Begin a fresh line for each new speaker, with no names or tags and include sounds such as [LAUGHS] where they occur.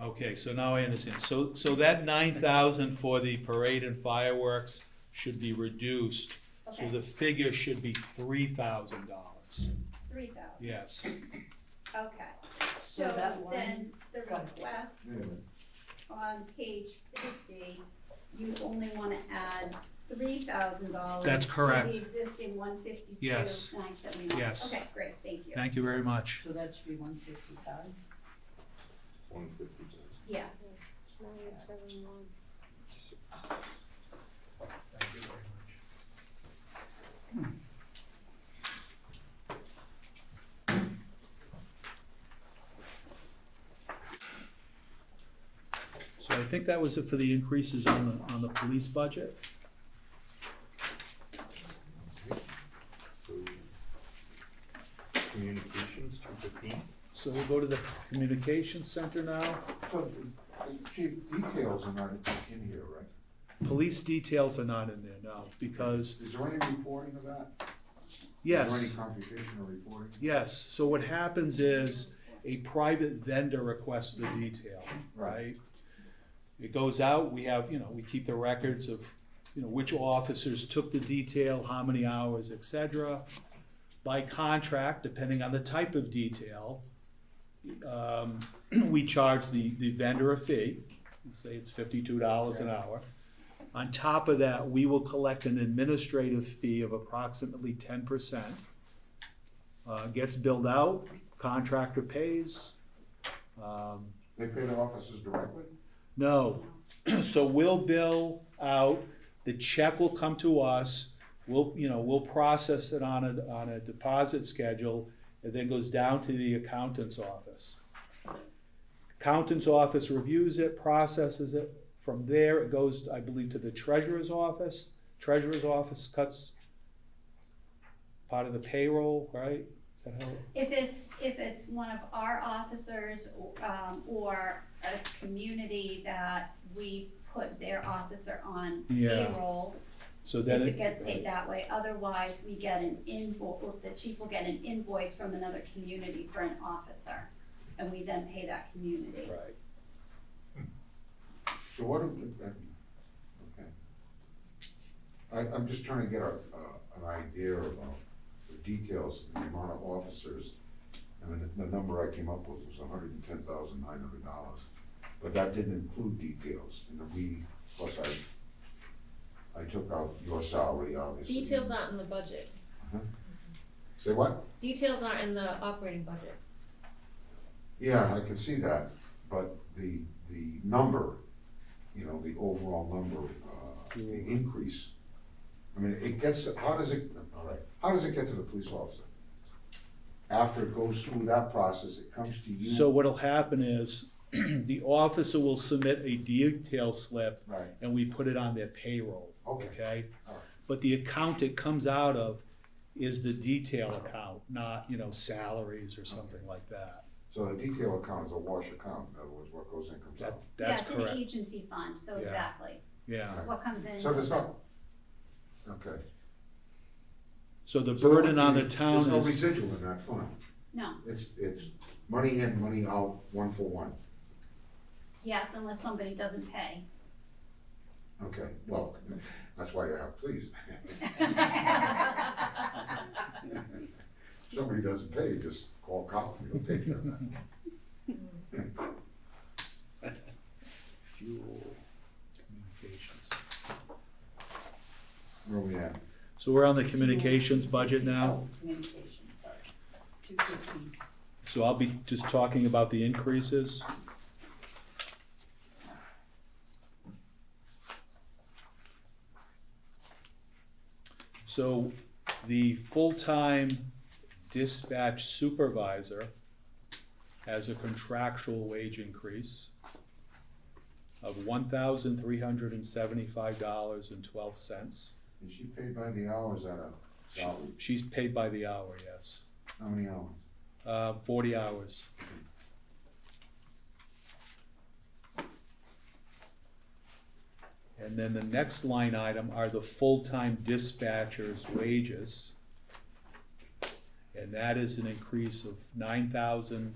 Okay, so now I understand. So, so that nine thousand for the parade and fireworks should be reduced. So
Okay,
the figure should be three thousand dollars.
three thousand,
Yes,
okay.
So
So
that one-
then the
go ahead.
request
Wait a minute.
on page fifty, you only wanna add three thousand dollars.
That's correct.
To the existing one fifty-two, nine
Yes.
seventy-nine.
Yes.
Okay, great, thank you.
thank you very much.
So that should be one fifty-five?
One fifty.
Yes,
Nine seven one.
Thank you very much. So I think that was it for the increases on the, on the police budget.
So, Communications, two fifteen.
So we'll go to the communications center now.
So, the chief, details are not in here, right?
Police details are not in there now, because,
Is there any reporting of that? Is
yes,
there any computational reporting?
yes, so what happens is, a private vendor requests the detail, right? It goes out, we have, you know, we keep the records of, you know, which officers took the detail, how many hours, et cetera. By contract, depending on the type of detail, um, [CLEARS THROAT] we charge the, the vendor a fee, say it's fifty-two dollars an hour. On top of that, we will collect an administrative fee of approximately ten percent. Uh, gets billed out, contractor pays. Um,
They pay the officers directly?
no, [CLEARS THROAT] so we'll bill out, the check will come to us, we'll, you know, we'll process it on a, on a deposit schedule, and then goes down to the accountant's office. Accountant's office reviews it, processes it, from there, it goes, I believe, to the treasurer's office, treasurer's office cuts part of the payroll, right? Is that how,
if it's, if it's one of our officers, or, um, or a community that we put their officer on
Yeah.
payroll,
so
if
then
it
it,
gets paid that way, otherwise we get an invoice, the chief will get an invoice from another community for an officer, and we then pay that community.
right,
So what, do- uh, okay. I, I'm just trying to get a, uh, an idea about the details, the amount of officers. I mean, the number I came up with was hundred and ten thousand nine hundred dollars, but that didn't include details. And we, plus I, I took out your salary, obviously.
Details aren't in the budget.
Say what?
Details aren't in the operating budget.
Yeah, I can see that, but the, the number, you know, the overall number, uh, the
Yeah.
increase. I mean, it gets, how does it, all right, how does it get to the police officer? After it goes through that process, it comes to you.
So what'll happen is, [CLEARS THROAT] the officer will submit a detail slip,
Right,
and we put it on their payroll,
okay,
okay?
Alright.
But the account it comes out of is the detail account, not, you know, salaries or something like that.
so the detail account is a wash account, in other words, what goes in comes
That,
out.
that's
Yeah, it's an
correct,
agency fund, so
Yeah.
exactly,
yeah.
what comes in.
So there's no, okay.
So the
So there
burden on the
wouldn't be-
town
There's no
is,
residual in that fund,
No,
it's, it's money in, money out, one for one,
yes, unless somebody
[LAUGHS]
doesn't pay. [LAUGHS]
okay, well, that's why you have police. Somebody doesn't pay, just call cop, he'll take care of that.
fuel communications.
Where we at?
So we're on the communications budget now,
Oh, Communication, sorry. Two fifteen.
so I'll be just talking about the increases. So the full-time dispatch supervisor has a contractual wage increase of one thousand three hundred and seventy-five dollars and twelve cents.
Is she paid by the hour, or is that a salary?
She's paid by the hour, yes,
How many hours?
uh, forty hours. And then the next line item are the full-time dispatchers' wages. And that is an increase of nine thousand